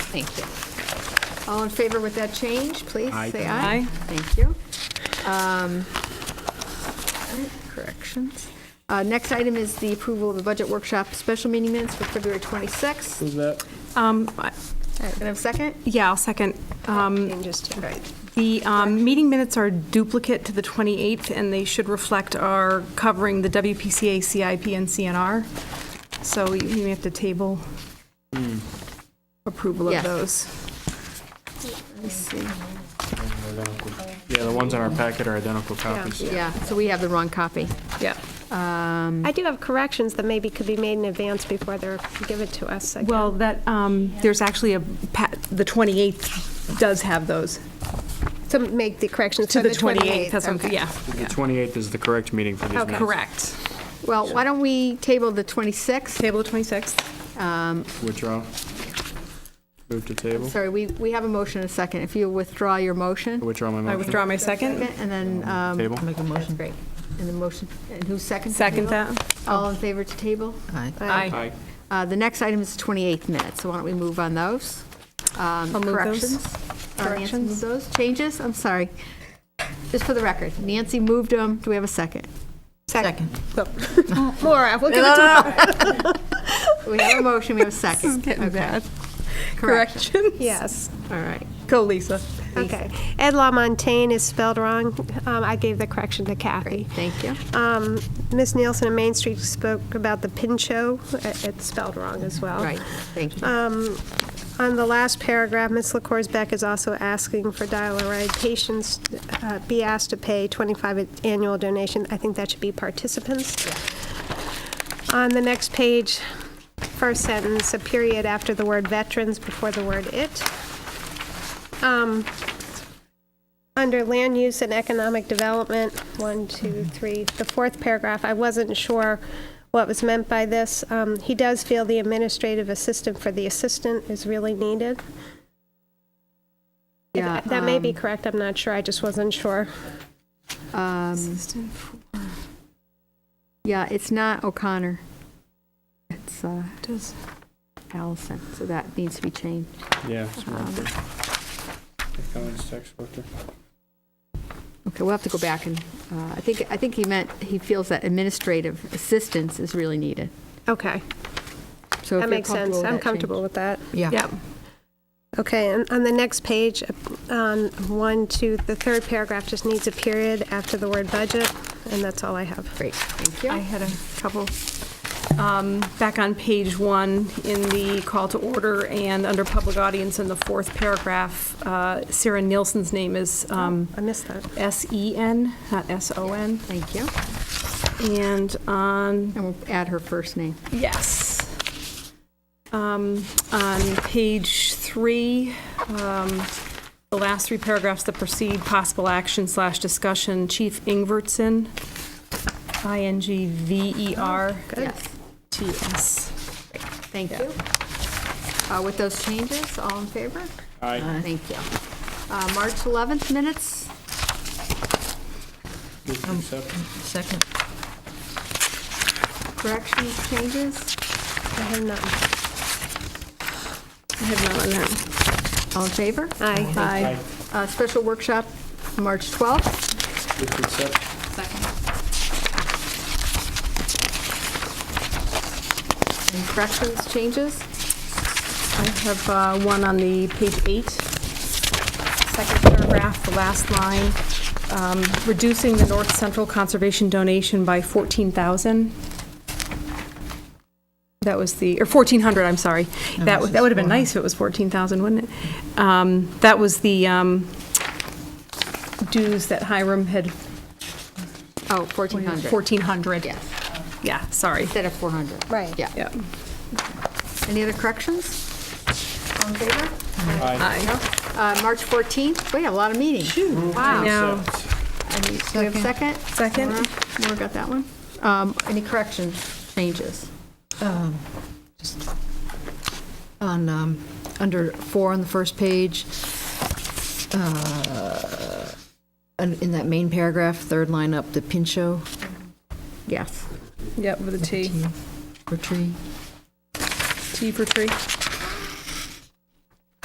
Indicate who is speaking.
Speaker 1: Thank you.
Speaker 2: All in favor with that change, please,
Speaker 3: Aye.
Speaker 2: say aye.
Speaker 1: Aye.
Speaker 2: Thank you. Um, all right, Corrections. Uh, Next item is the approval of the budget workshop special meeting minutes for February 26th.
Speaker 3: Who's that?
Speaker 4: Um, I-
Speaker 2: All right, Can I have a second?
Speaker 4: Yeah, I'll second. Um,
Speaker 2: Changes to. Right.
Speaker 4: The um, meeting minutes are duplicate to the 28th, and they should reflect our covering the WPCA, CIP, and CNR. So you you may have to table approval of
Speaker 2: Yes.
Speaker 4: those.
Speaker 2: Let me see.
Speaker 3: Yeah, the ones in our packet are identical copies.
Speaker 2: Yeah, so we have the wrong copy.
Speaker 4: Yeah.
Speaker 5: I do have corrections that maybe could be made in advance before they're given to us. I
Speaker 4: Well, that, um, there's actually a, pa- the 28th does have those.
Speaker 5: guess, To make the corrections
Speaker 4: To
Speaker 5: for
Speaker 4: the
Speaker 5: the
Speaker 4: 28th,
Speaker 5: 28th.
Speaker 4: that's what,
Speaker 5: okay.
Speaker 4: yeah.
Speaker 3: The 28th is the correct meeting for these minutes.
Speaker 4: Correct.
Speaker 2: Well, why don't we table the 26th?
Speaker 4: Table the 26th.
Speaker 3: Withdraw. Move to table.
Speaker 2: Sorry, we, we have a motion and a second. If you withdraw your motion,
Speaker 3: Withdraw my motion.
Speaker 4: I withdraw my second.
Speaker 2: and then, um,
Speaker 3: Table.
Speaker 1: Make a
Speaker 2: that's
Speaker 1: motion.
Speaker 2: great. And the motion, and who seconds? the
Speaker 4: Second
Speaker 2: table?
Speaker 4: that.
Speaker 2: All in favor to table?
Speaker 1: Aye.
Speaker 4: Aye.
Speaker 3: Aye.
Speaker 2: Uh, The next item is 28 minutes, so why don't we move on those? Um,
Speaker 4: I'll move those.
Speaker 2: Corrections? Uh, Nancy moved those? Changes? I'm sorry. Just for the record, Nancy moved them. Do we have a second?
Speaker 1: Second.
Speaker 5: Laura, uh, we'll give it to
Speaker 2: We have a motion, we have a second. This is getting
Speaker 4: bad.
Speaker 2: Correction.
Speaker 4: Correction.
Speaker 5: Yes,
Speaker 2: All right.
Speaker 4: Go, Lisa.
Speaker 5: okay. Ed LaMontagne is spelled wrong. Um, I gave the correction to Kathy.
Speaker 2: Great, thank you.
Speaker 5: Um, Ms. Nielsen of Main Street spoke about the pincho. It- It's spelled wrong as well.
Speaker 2: Right, thank you.
Speaker 5: On the last paragraph, Ms. LaCourse Beck is also asking for dial-a-ride patients uh, be asked to pay 25 annual donation. I think that should be participants. On the next page, first sentence, a period after the word veterans before the word it. Um, Under land use and economic development, one, two, three, the fourth paragraph, I wasn't sure what was meant by this. Um, He does feel the administrative assistant for the assistant is really needed.
Speaker 2: Yeah,
Speaker 5: That may be
Speaker 2: um,
Speaker 5: correct, I'm not sure, I just wasn't sure.
Speaker 2: um, Yeah, it's not O'Connor. It's uh,
Speaker 4: Does-
Speaker 2: Allison, so that needs to be changed.
Speaker 3: Yeah. it's wrong. Cummings text worker.
Speaker 2: Okay, we'll have to go back and, uh, I think, I think he meant, he feels that administrative assistance is really needed.
Speaker 5: Okay,
Speaker 2: So if
Speaker 5: that
Speaker 2: you're
Speaker 5: makes
Speaker 2: comfortable with
Speaker 5: sense, I'm
Speaker 2: that change.
Speaker 5: comfortable with that.
Speaker 1: Yeah.
Speaker 4: Yep.
Speaker 5: Okay, and on the next page, on one, two, the third paragraph just needs a period after the word budget, and that's all I have.
Speaker 2: Great,
Speaker 4: I
Speaker 2: thank you.
Speaker 4: had a couple. Um, Back on page one, in the call to order and under public audience in the fourth paragraph, uh, Sarah Nielsen's name is um,
Speaker 5: I missed that.
Speaker 4: S-E-N, not S-O-N.
Speaker 2: Thank you.
Speaker 4: And on,
Speaker 2: And we'll add her first name.
Speaker 4: yes. Um, On page three, um, the last three paragraphs that precede possible action slash discussion, Chief Ingvertson, E I-N-G-V-E-R-T-S.
Speaker 2: Yes, thank you. Uh, With those changes, all in favor?
Speaker 3: Aye.
Speaker 2: Thank you. Uh, March 11th minutes,
Speaker 3: Move to accept.
Speaker 1: Second.
Speaker 2: corrections, changes,
Speaker 5: I have none.
Speaker 4: I have none on that.
Speaker 2: all in favor?
Speaker 5: Aye.
Speaker 4: Aye.
Speaker 2: Uh, Special workshop, March 12th.
Speaker 3: Move to accept.
Speaker 2: And corrections, changes,
Speaker 4: I have uh, one on the page eight, second paragraph, the last line, um, reducing the North Central Conservation donation by 14,000. That was the, or 1,400, I'm sorry. That
Speaker 1: this
Speaker 4: would, that would have
Speaker 1: is
Speaker 4: been nice if it was 14,000, wouldn't it? Um, That was the um, dues that Hiram had,
Speaker 2: oh, 1,400,
Speaker 4: 1,400.
Speaker 2: yes,
Speaker 4: Yeah, sorry.
Speaker 2: instead of 400.
Speaker 5: Right.
Speaker 2: Yeah.
Speaker 4: Yep.
Speaker 2: Any other corrections? All in favor?
Speaker 4: Aye.
Speaker 2: Uh, March 14th, we have a lot of meetings. Wow.
Speaker 4: Now,
Speaker 2: I mean, Do we have a second?
Speaker 4: Second.
Speaker 2: Laura? Laura got that one. Um, Any corrections, changes?
Speaker 1: Um, just On, um, under four on the first page, uh, and in that main paragraph, third line up, the pincho
Speaker 2: Yes.
Speaker 4: yep, with a T,
Speaker 1: for tree.
Speaker 4: T for tree.